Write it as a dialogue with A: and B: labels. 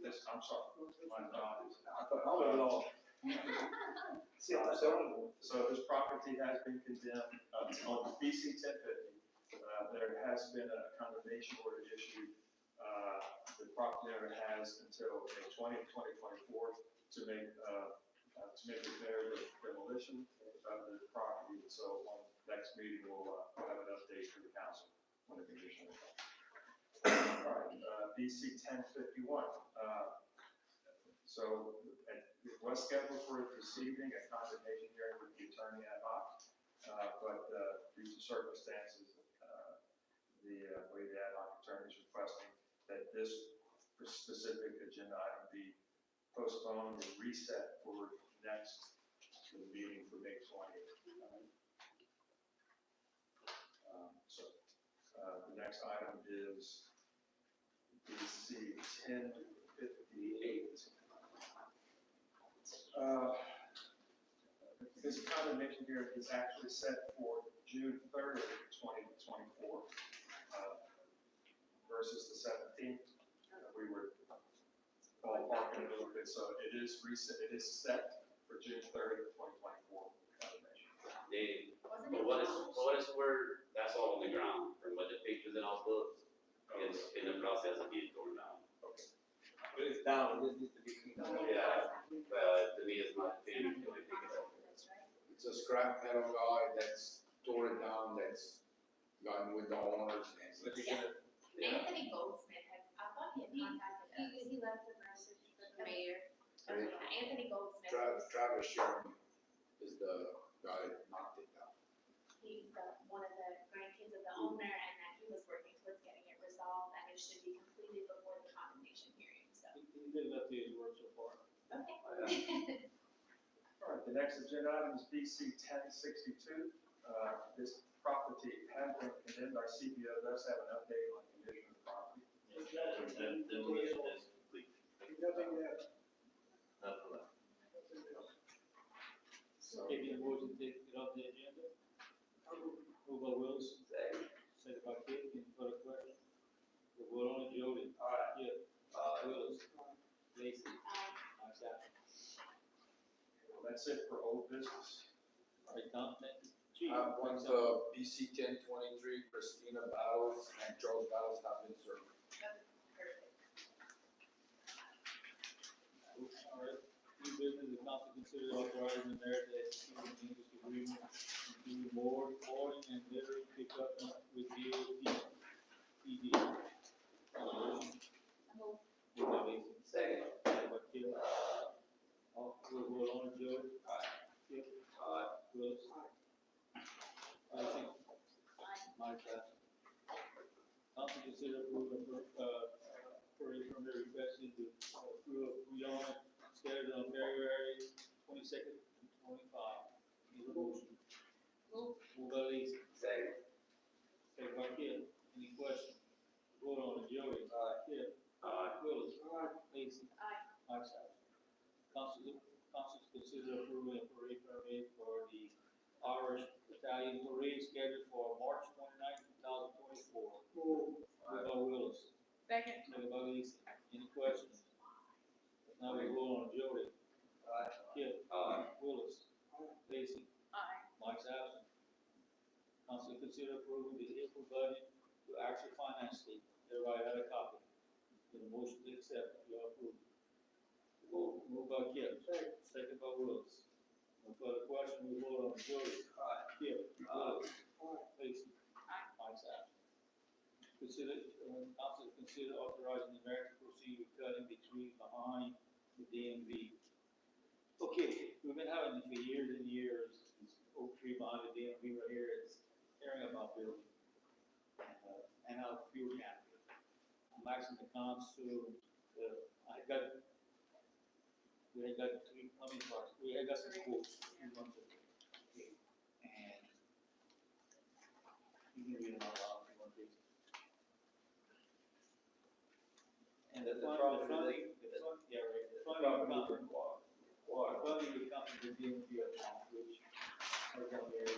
A: This, I'm sorry. My uh, God.
B: I thought, oh, no. See, I don't.
A: So this property has been condemned, uh, on BC ten fifty. Uh, there has been a condemnation order issued. Uh, the property owner has until May 20, 2024 to make, uh, uh, to make repair the demolition of the property. So on next meeting, we'll, uh, have an update for the council on the condition. of the property. All right, uh, BC ten fifty-one, uh, so uh, it was scheduled for this evening, a condemnation hearing with the attorney ad hoc. Uh, But uh, due to circumstances, uh, the uh, way the ad hoc attorney is requesting that this specific agenda item be postponed and reset for next, to the meeting for May 20th. Um, So uh, the next item is DC 1058. Uh, This condemnation hearing is actually set for June 3rd, 2024 uh, versus the 17th. Uh, We were ballparking a little bit, so it is recent, it is set for June 3rd, 2024 condemnation.
C: They,
D: Wasn't
C: but
D: it
C: what is,
D: Walsh?
C: what is where, that's all on the ground, from what the pictures and all those, it's in the process of being torn down.
A: Okay.
B: But it's down, it just needs to be cleaned up.
C: Yeah. But to me, it's not fair, to pick it up.
D: That's right.
E: It's a scrap metal guy that's torn down, that's gone with the owners and.
B: But you can,
C: Yeah,
D: Anthony Goldsmith had, I thought he had contacted us.
F: He, he left a message for
D: The
F: the mayor.
D: mayor,
E: Right.
D: Anthony Goldsmith,
E: Travis,
D: was-
E: Travis Sherman is the guy that knocked it down.
D: he's the, one of the grandkids of the
C: Mm-hmm.
D: owner, and that he was working towards getting it resolved, and it should be completed before the condemnation hearing, so.
B: he did let these work so far.
D: Okay.
A: All right, the next agenda item is BC ten sixty-two. Uh, This property has been condemned, our CBO does have an update on condition of the property.
G: The demolition is complete,
B: Nothing yet.
G: nothing left.
A: So,
B: Give you a motion to take it off the agenda. Move by Wills, second by Kate, any further questions? The vote on it, Jody.
A: Aye.
B: Yeah. Wills. Lacy.
D: Um,
B: Myself.
A: well, that's it for old business.
B: All right, Tom, thank you. Chief.
E: Uh, once, uh, BC ten twenty-three, Christina Battles and Charles Battles have been served.
D: perfect.
B: All right, new business, the council consider authorizing the mayor to execute an English agreement to do more boarding and litter pickup with DOT. PD. Um,
D: Move.
B: Move by Lacy,
E: Second.
B: second by Kip. All, we'll hold on, Joe.
E: Aye.
B: Kip,
E: Uh,
B: Willis. Lacy. Mike, aye. Council consider approving, uh, for a permit requesting to approve beyond scheduled on February twenty-second to twenty-five. Need a motion?
D: Move.
B: Move by Lacy,
E: Second.
B: second by Kip. Any questions? Vote on it, Joey. Aye. Kip.
C: uh,
B: Willis. Aye. Lacy.
D: Aye.
B: Mike, aye. Council, council consider approving a parade permit for the Irish Italian parade scheduled for March twenty-ninth, two thousand twenty-four. Move by Willis.
D: Second.
B: Second by Lacy. Any questions? Now we go on Jody.
E: Aye.
B: Kip.
C: Aye.
B: Willis. Lacy.
D: Aye.
B: Mike's absent. Council consider approving the April budget to action finance statement. Everybody had a copy. Get a motion to accept if you approve. Move. Move by Kip. Second. Second by Willis. No further question, we vote on Jody. Aye. Kip.
E: Aye.
B: Willis. Lacy. Mike's absent. Consider, um, council consider authorizing the mayor to proceed with cutting the trees behind the DMV. Okay, we've been having this for years and years, this oak tree behind the DMV right here, it's tearing up our building. And, uh, and our fuel cap. I'm asking the council, uh, I got, we had got three, I mean, sorry, we had got some quotes three months ago. And you can read them out loud if you want to. And the
G: That's the problem,
B: funding, the funding, the fund, yeah, right, the funding comes, well, funding would come from the DMV account, which, right down there,